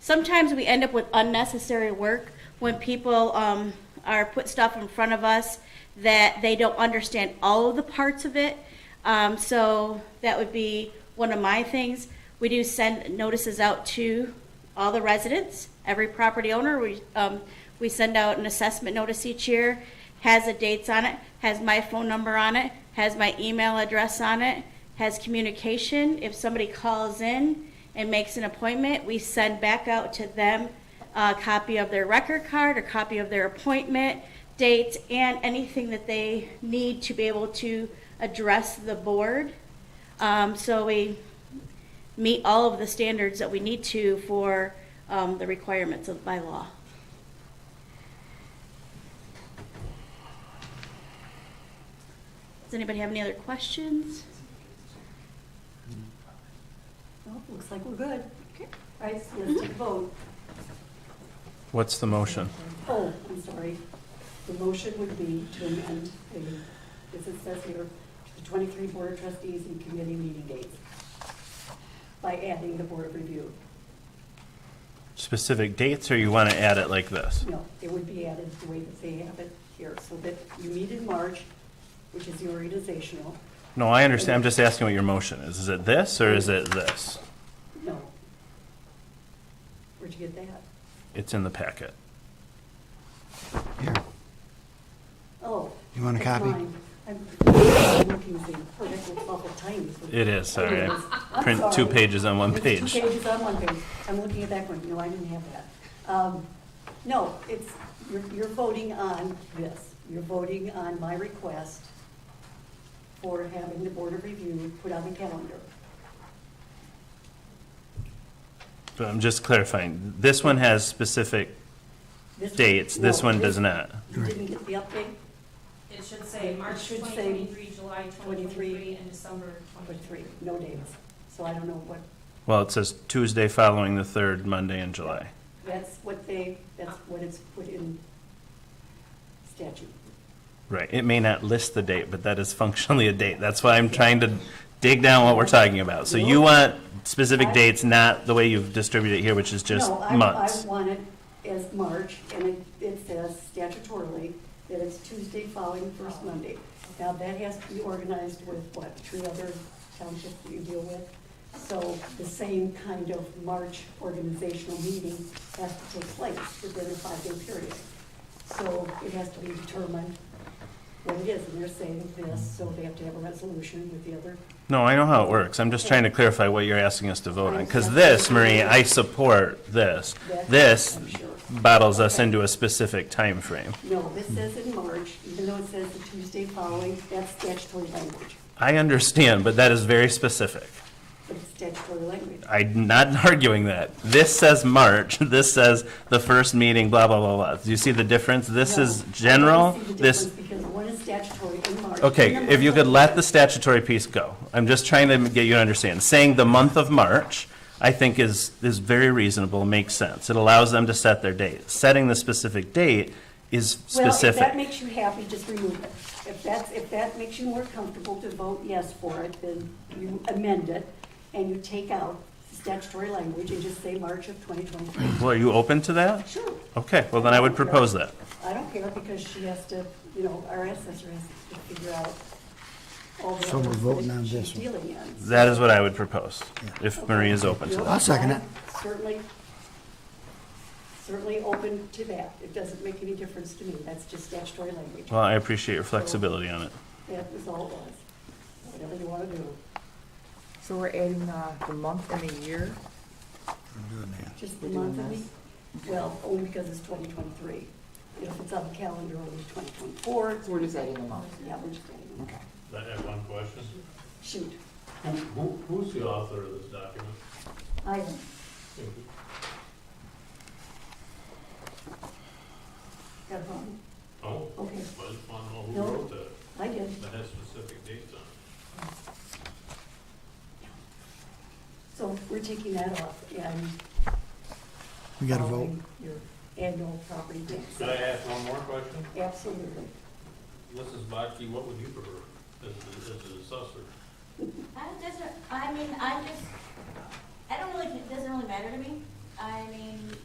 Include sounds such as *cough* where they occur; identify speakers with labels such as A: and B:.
A: sometimes we end up with unnecessary work when people um, are put stuff in front of us that they don't understand all of the parts of it. Um, so that would be one of my things. We do send notices out to all the residents, every property owner. We, um, we send out an assessment notice each year, has the dates on it, has my phone number on it, has my email address on it, has communication. If somebody calls in and makes an appointment, we send back out to them a copy of their record card, a copy of their appointment dates, and anything that they need to be able to address the board. Um, so we meet all of the standards that we need to for um, the requirements of by law. Does anybody have any other questions?
B: Well, Oh, looks like we're good.
A: Okay.
B: All right, so let's take a vote.
C: What's the motion?
B: Oh, I'm sorry. The motion would be to amend the, as it says here, to the 23 Board of Trustees and committee meeting dates by adding the Board of Review.
C: Specific dates, or you want to add it like this?
B: No, it would be added the way that they have it here, so that you meet in March, which is the organizational.
C: No, I understand, I'm just asking what your motion is. Is it this, or is it this?
B: No. Where'd you get that?
C: It's in the packet.
D: Here,
B: Oh.
D: You want a
B: that's
D: copy?
B: mine. I'm I'm looking at the political bubble times.
C: It is, sorry.
B: It
C: I
B: is. I'm
C: Print two
B: sorry.
C: pages on one
B: It's
C: page.
B: Two pages on one page. I'm looking at that one. No, I didn't have that. Um, No, it's, you're, you're voting on this. You're voting on my request for having the Board of Review put on the calendar.
C: But I'm just clarifying, this one has specific
B: This one-
C: dates, this
B: no,
C: one does not.
B: You didn't get the update?
E: It should say
B: It
E: March
B: should
E: twenty
B: say
E: twenty-three, July twenty
B: 23,
E: twenty-three, and December
B: Or three,
E: twenty-three.
B: no dates. So I don't know what,
C: Well, it says Tuesday following the third Monday in July.
B: that's what they, that's what it's put in statute.
C: Right, it may not list the date, but that is functionally a date. That's why I'm trying to dig down what we're talking about. So you want specific dates, not the way you've distributed it here, which is just
B: No, I-
C: months.
B: I want it as March, and it, it says statutorily that it's Tuesday following the first Monday. Now, that has to be organized with what, three other townships that you deal with? So the same kind of March organizational meeting has to take place within a five-day period. So it has to be determined what it is, and they're saying this, so they have to have a resolution with the other.
C: No, I know how it works. I'm just trying to clarify what you're asking us to vote on. Because this, Marie, I support this. This
B: I'm sure.
C: bottles us into a specific time frame.
B: No, this says in March, even though it says the Tuesday following, that's statutory language.
C: I understand, but that is very specific.
B: But it's statutory language.
C: I'm not *laughs* arguing that. This says March, this says the first meeting, blah, blah, blah, blah. Do you see the difference? This
B: No,
C: is
B: I don't
C: general,
B: see the
C: this,
B: difference Because one is statutory in March.
C: Okay,
B: and
C: if you could let the
B: month
C: statutory piece go, I'm just trying to get you to understand. Saying the month of March, I think is, is very reasonable, makes sense. It allows them to set their date. Setting the specific date is
B: of- Well, if that
C: specific.
B: makes you happy, just remove it. If that's, if that makes you more comfortable to vote yes for it, then you amend it and you take out statutory language and just say March of 2023.
C: Well, are you open to that?
B: Sure,
C: Okay, well then I would propose that.
B: I don't care because she has to, you know, our assessor has to figure out all the
D: So we're
B: others
D: voting
B: that
D: on
B: she's
D: this one.
B: dealing in.
C: That is what I would propose, if Marie is open to that.
D: I'll second it.
B: Certainly, certainly open to that. It doesn't make any difference to me. That's just statutory language.
C: Well, I appreciate your flexibility on it.
B: That was all it was. Whatever you want to do,
F: So we're adding uh, the month and the year?
B: just the month of the, well, only because it's 2023. If it's on the calendar, it'll be 2024.
F: We're just adding the month.
B: Yeah, we're just adding.
F: Okay.
G: I have one question.
B: Shoot,
G: Who, who- who's the author of this document?
B: I, got it wrong.
G: Oh,
B: Okay,
G: I just want to know who
B: No.
G: wrote that,
B: I did.
G: that has specific dates on it.
B: So we're taking that off and.
D: We
B: Oh,
D: got to vote.
B: following Your annual property
G: Could I
B: tax.
G: ask one more question?
B: Absolutely.
G: Mrs. Bocky, what would you prefer as, the- as the assessor?
A: I doesn't, I mean, I just, I don't really, it doesn't really matter to me. I mean,